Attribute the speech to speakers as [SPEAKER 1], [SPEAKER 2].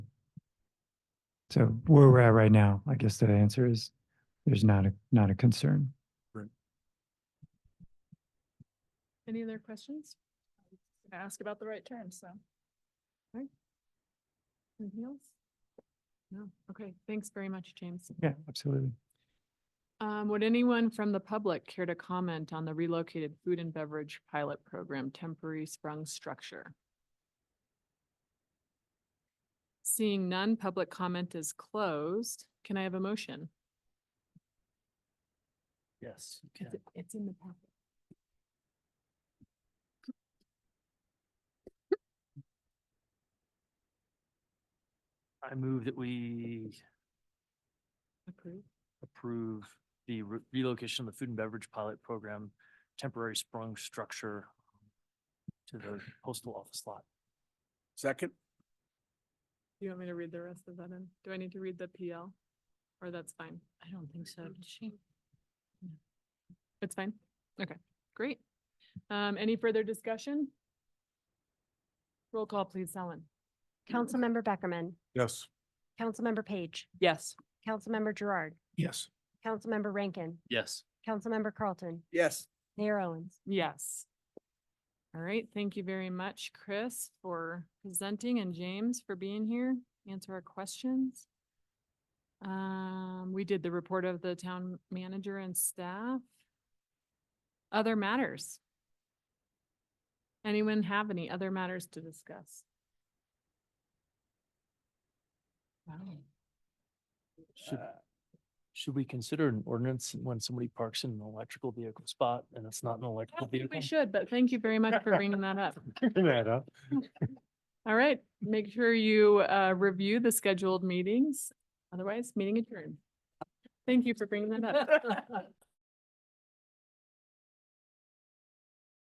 [SPEAKER 1] So where we're at right now, I guess the answer is there's not a, not a concern.
[SPEAKER 2] Any other questions? Gonna ask about the right terms, so. Okay. Anything else? No, okay, thanks very much, James.
[SPEAKER 1] Yeah, absolutely.
[SPEAKER 2] Um, would anyone from the public care to comment on the relocated food and beverage pilot program temporary sprung structure? Seeing none, public comment is closed. Can I have a motion?
[SPEAKER 3] Yes.
[SPEAKER 2] It's in the packet.
[SPEAKER 3] I move that we
[SPEAKER 2] Approved.
[SPEAKER 3] approve the re- relocation of the food and beverage pilot program temporary sprung structure to the postal office lot.
[SPEAKER 4] Second?
[SPEAKER 2] Do you want me to read the rest of that in? Do I need to read the PL? Or that's fine?
[SPEAKER 5] I don't think so, did she?
[SPEAKER 2] It's fine. Okay, great. Um, any further discussion? Roll call, please, Ellen.
[SPEAKER 6] Councilmember Beckerman,
[SPEAKER 4] Yes.
[SPEAKER 6] Councilmember Page,
[SPEAKER 2] Yes.
[SPEAKER 6] Councilmember Gerard,
[SPEAKER 4] Yes.
[SPEAKER 6] Councilmember Rankin,
[SPEAKER 3] Yes.
[SPEAKER 6] Councilmember Carlton,
[SPEAKER 4] Yes.
[SPEAKER 6] Mayor Owens.
[SPEAKER 2] Yes. All right, thank you very much, Chris, for presenting and James for being here, answer our questions. Um, we did the report of the town manager and staff. Other matters? Anyone have any other matters to discuss? Wow.
[SPEAKER 3] Should, should we consider an ordinance when somebody parks in an electrical vehicle spot and it's not an
[SPEAKER 2] I
[SPEAKER 3] electrical
[SPEAKER 2] don't think
[SPEAKER 3] vehicle?
[SPEAKER 2] we should, but thank you very much for bringing that up.
[SPEAKER 3] Bring that up.
[SPEAKER 2] All right, make sure you uh review the scheduled meetings. Otherwise, meeting adjourned. Thank you for bringing that up.